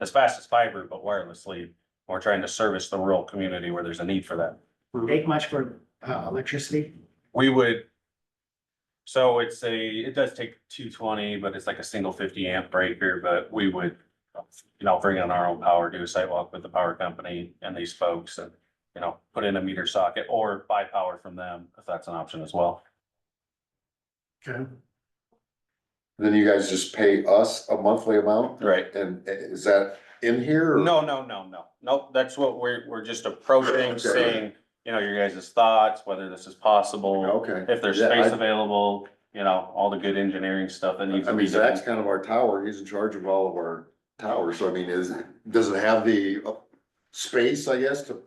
as fast as fiber, but wirelessly. We're trying to service the rural community where there's a need for that. Make much for uh, electricity? We would. So it's a, it does take two twenty, but it's like a single fifty amp breaker, but we would. You know, bring in our own power, do a sidewalk with the power company and these folks and, you know, put in a meter socket or buy power from them if that's an option as well. Okay. Then you guys just pay us a monthly amount Right. and is that in here? or- No, no, no, no, no, that's what we're, we're just approaching, Okay. seeing, you know, your guys' thoughts, whether this is possible. Okay. If there's Yeah, I- space available, you know, all the good engineering stuff that needs I to mean, be Zach's done. kind of our tower, he's in charge of all of our towers, so I mean, is, does it have the uh, space, I guess, to?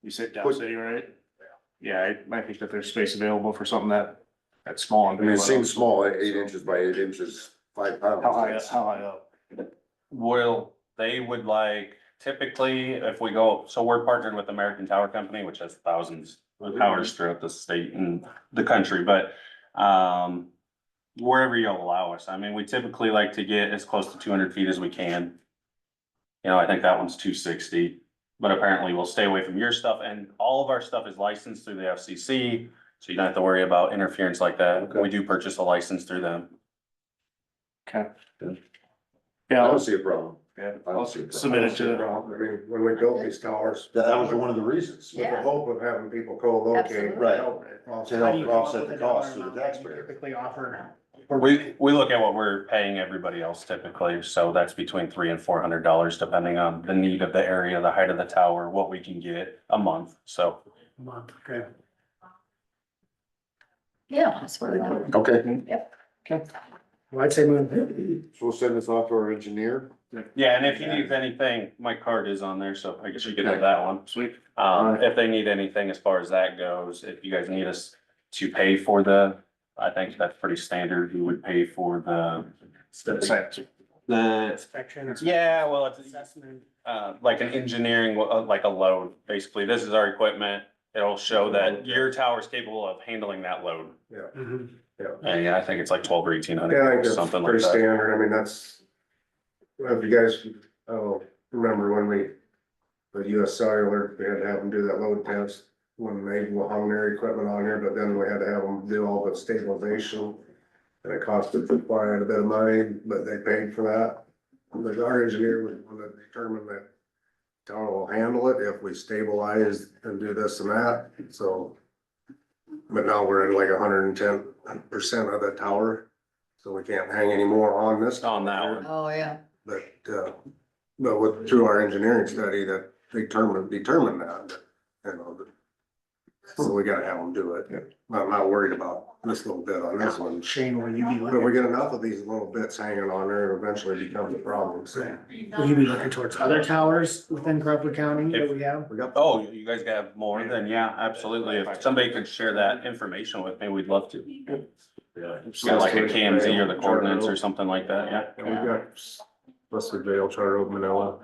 You said Dow Put- City, right? Yeah, I, I think that there's space available for something that, that's small. and I mean, it big, but seems small, eh, eight inches by eight inches, five pounds. How high, up- how high up? Will, they would like, typically, if we go, so we're partnered with American Tower Company, which has thousands of towers throughout the state and the country, but, um, wherever you allow us, I mean, we typically like to get as close to two hundred feet as we can. You know, I think that one's two sixty, but apparently we'll stay away from your stuff, and all of our stuff is licensed through the FCC, so you don't have to worry about interference like that. Okay. We do purchase a license through them. Okay. Yeah. I Yeah, don't I'll- see a problem. yeah, I don't I'll see a problem. submit it to, problem. I mean, when we built these towers, That that was one of the reasons. with the Yeah. hope of having people co-locate. Right. Also, To How do help you come up offset with the a dollar cost to the amount that you taxpayer. Typically offer. We, we look at what we're paying everybody else typically, so that's between three and four hundred dollars depending on the need of the area, the height of the tower, what we can get a month, so. a Month, okay. Yeah, that's where we go. Okay, Mm-hmm. Well, I'd say move. so we'll send this off to our engineer. Yeah, and if you need anything, my card is on there, so I guess you can have that one. sweet, Um, if they need anything as far as that goes, if you guys need us to pay for the, I think that's pretty standard, you would pay for the. Same. The, Inspection or yeah, well, it's, assessment. uh, like an engineering, uh, like a load, basically. This is our equipment. It'll show that your tower's capable of handling that load. Mhm. And yeah, I think it's like twelve or eighteen Yeah, I hundred or think that's something like pretty that. standard. I mean, that's, well, if you guys, oh, remember when we, the US Cellular, we had to have them do that load test when they hung their equipment on here, but then we had to have them do all the stabilization. And it costed quite a bit of money, but they paid for that. But our engineer was one that determined that town will handle it if we stabilize and do this and that, so. But now we're at like hundred and ten percent of the tower, so we can't hang any more on this. On that one. Oh, yeah. But, uh, but with, through our engineering study that determined, determined that, you know. that- So we gotta have them do it. I'm not worried about this little bit on this one. Shane, will you be But we looking, get enough of these little bits hanging on there, it eventually becomes a problem, so. will you be looking towards other towers within Crawford County that we have? We got, Oh, you guys have more than, yeah, absolutely. If somebody could share that information with me, we'd love to. Kind of like a KMZ or the coordinates or something like that, yeah. And we've got Leslie Vale, Charter Oak, Manila.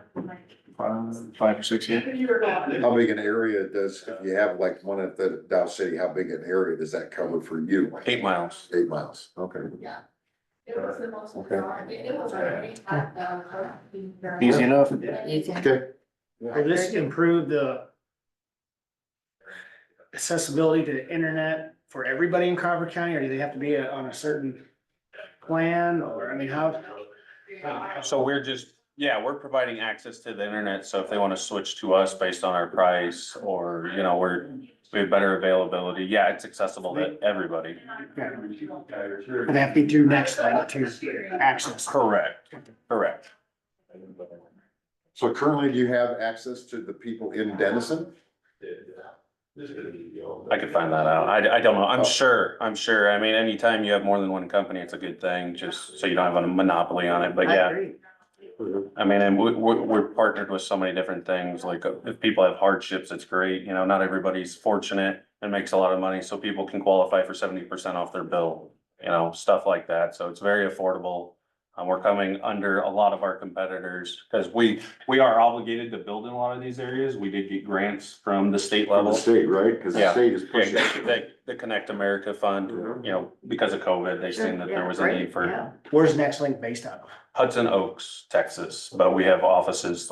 five, five or six here. How big an area does, if you have like one at the Dow City, how big an area does that cover for you? Eight miles. Eight miles, okay. Easy enough. Easy. Okay. Will this improve the accessibility to the internet for everybody in Crawford County, or do they have to be on a certain plan, or, I mean, how? So we're just, yeah, we're providing access to the internet, so if they want to switch to us based on our price or, you know, we're, we have better availability, yeah, it's accessible to everybody. Would that be through next, like, to access? Correct, correct. So currently, do you have access to the people in Denison? I could find that out. I, I don't know. I'm sure, I'm sure. I mean, anytime you have more than one company, it's a good thing, just so you don't have a monopoly on it, but I yeah. agree. I mean, and we, we, we're partnered with so many different things, like uh, if people have hardships, it's great, you know, not everybody's fortunate and makes a lot of money, so people can qualify for seventy percent off their bill, you know, stuff like that, so it's very affordable. And we're coming under a lot of our competitors, because we, we are obligated to build in a lot of these areas. We did get grants from the state From the level. state, right? Cause the Yeah. state is pushing. Yeah, The, the Connect America Fund, Mhm. you know, because of COVID, they seen that there was a need for Where's Next Link based out of? Hudson Oaks, Texas, but we have offices